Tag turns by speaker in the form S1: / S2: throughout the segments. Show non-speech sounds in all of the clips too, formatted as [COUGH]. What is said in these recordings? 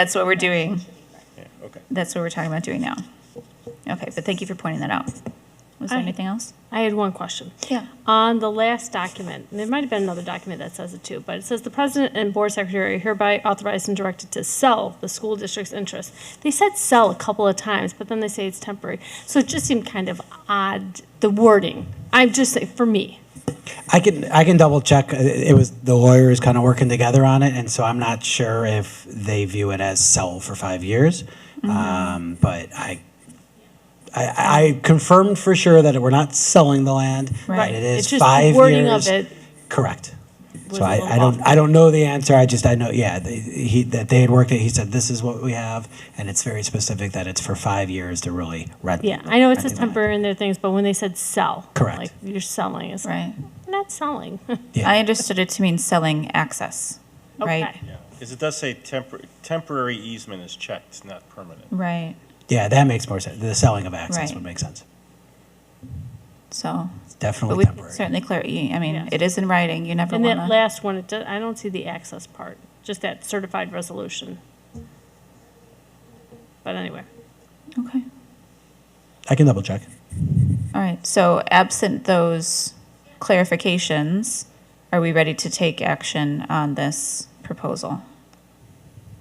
S1: That's what we're doing.
S2: Yeah, okay.
S1: That's what we're talking about doing now. Okay, but thank you for pointing that out. Was there
S3: Alright.
S1: anything else?
S3: I had one question.
S1: Yeah.
S3: On the last document, and there might have been another document that says it too, but it says the president and board secretary are hereby authorized and directed to sell the school district's interest. They said sell a couple of times, but then they say it's temporary. So it just seemed kind of odd, the wording. I'm just, saying, for me.
S4: I can I can double check. uh, It it was the lawyers kind of working together on it, and so I'm not sure if they view it as sell for five years.
S3: Mm-hmm.
S4: Um, but I, I I confirmed for sure that we're not selling the land.
S1: Right.
S4: that It
S3: It's
S4: is
S3: just the
S4: five
S3: wording of
S4: years.
S3: it
S4: Correct.
S3: was
S4: So
S3: a
S4: I,
S3: little
S4: I don't
S3: off.
S4: I don't know the answer. I just I know yeah they, he that they had worked it. He said this is what we have, and it's very specific that it's for five years to really rent.
S3: Yeah, I know
S4: renting
S3: it says
S4: the land.
S3: temporary in their things, but when they said sell.
S4: Correct.
S3: Like, you're selling, it's like,
S1: Right.
S3: not selling. [LAUGHS]
S4: Yeah.
S1: I understood it to mean selling access, right?
S3: Okay.
S2: Yeah, because it does say tempor- temporary easement is checked, not permanent.
S1: Right,
S4: Yeah, that makes more sense. The selling of access
S1: Right.
S4: would make sense.
S1: so,
S4: It's
S1: but
S4: definitely
S1: we can
S4: temporary.
S1: certainly clear, you- I mean,
S3: Yes.
S1: it is in writing, you never
S3: And that
S1: wanna.
S3: last one, it does, I don't see the access part, just that certified resolution. But anyway,
S1: Okay,
S4: I can double check.
S1: all right, so absent those clarifications, are we ready to take action on this proposal?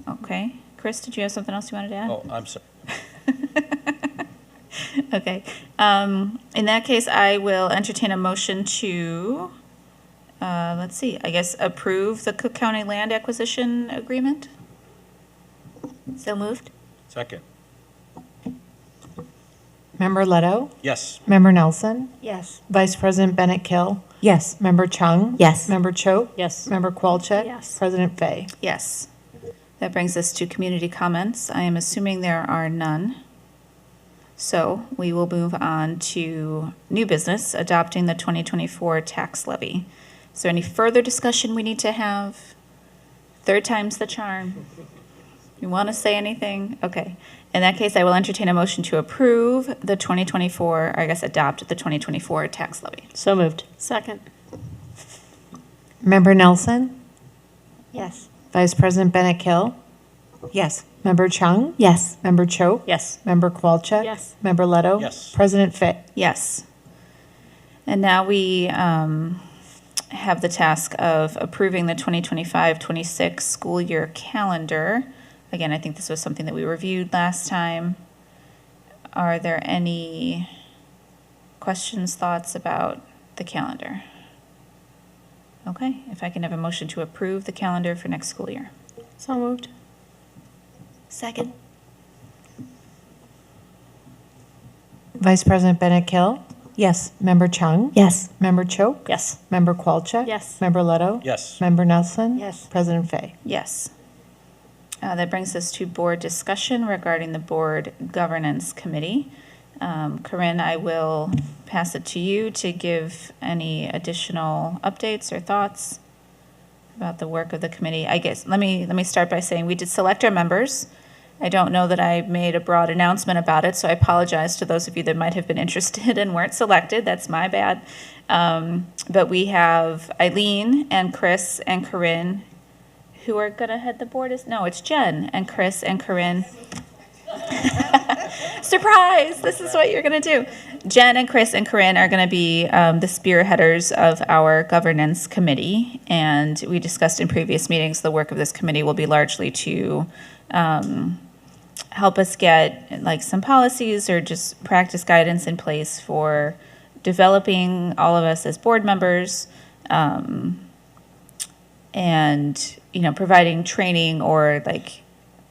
S1: Okay, Chris, did you have something else you wanted to add?
S2: Oh, I'm sorry.
S1: [LAUGHS] Okay. Um, in that case, I will entertain a motion to, uh, let's see, I guess approve the Cook County Land Acquisition Agreement? So moved?
S2: Second,
S5: Member Leto?
S2: yes,
S5: Member Nelson?
S6: Yes.
S5: Vice President Bennett Kill?
S6: Yes.
S5: Member Chung?
S6: Yes.
S5: Member Cho?
S3: yes.
S5: Member Qualcheck?
S3: Yes.
S5: President Fay?
S1: Yes. That brings us to community comments. I am assuming there are none. So we will move on to new business, adopting the 2024 tax levy. Is there any further discussion we need to have? Third time's the charm. You want to say anything? Okay. In that case, I will entertain a motion to approve the 2024, or I guess adopt the 2024 tax levy.
S3: So moved. Second,
S5: Member Nelson?
S6: Yes.
S5: Vice President Bennett Kill?
S6: Yes.
S5: Member Chung?
S6: Yes.
S5: Member Cho?
S3: yes.
S5: Member Qualcheck?
S3: Yes.
S5: Member Leto?
S2: Yes.
S5: President Fay?
S1: Yes. And now we um, have the task of approving the 2025-26 school year calendar. Again, I think this was something that we reviewed last time. Are there any questions, thoughts about the calendar? Okay, if I can have a motion to approve the calendar for next school year.
S3: So moved.
S6: Second?
S5: Vice President Bennett Kill?
S6: Yes.
S5: Member Chung?
S6: Yes.
S5: Member Cho?
S3: Yes.
S5: Member Qualcheck?
S3: Yes.
S5: Member Leto?
S2: yes,
S5: Member Nelson?
S6: Yes.
S5: President Fay?
S1: Yes. Uh, That brings us to board discussion regarding the Board Governance Committee. Um, Corinne, I will pass it to you to give any additional updates or thoughts about the work of the committee. I guess, let me, let me start by saying we did select our members. I don't know that I made a broad announcement about it, so I apologize to those of you that might have been [LAUGHS] interested and weren't selected. That's my bad. Um, But we have Eileen and Chris and Corinne who are gonna head the board is, no, it's Jen and Chris and Corinne. [LAUGHS] Surprise, this is what you're gonna do. Jen and Chris and Corinne are gonna be um, the spearheaders of our governance committee. And we discussed in previous meetings, the work of this committee will be largely to um, help us get like some policies or just practice guidance in place for developing all of us as board members and you know providing training or like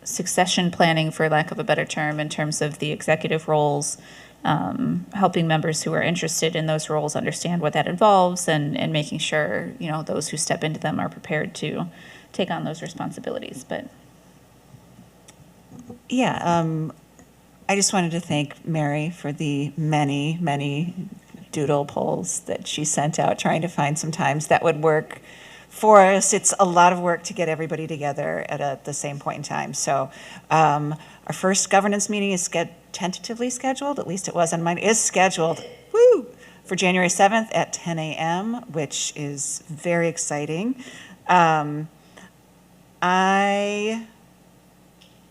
S1: succession planning for lack of a better term in terms of the executive roles um, helping members who are interested in those roles understand what that involves and and making sure you know those who step into them are prepared to take on those responsibilities but
S7: Yeah, um, I just wanted to thank Mary for the many, many doodle polls that she sent out, trying to find some times that would work for us. It's a lot of work to get everybody together at a, the same point in time. So um, our first governance meeting is sched- tentatively scheduled, at least it was on mine, is scheduled. Woo! For January 7th at 10 a.m., which is very exciting. Um, I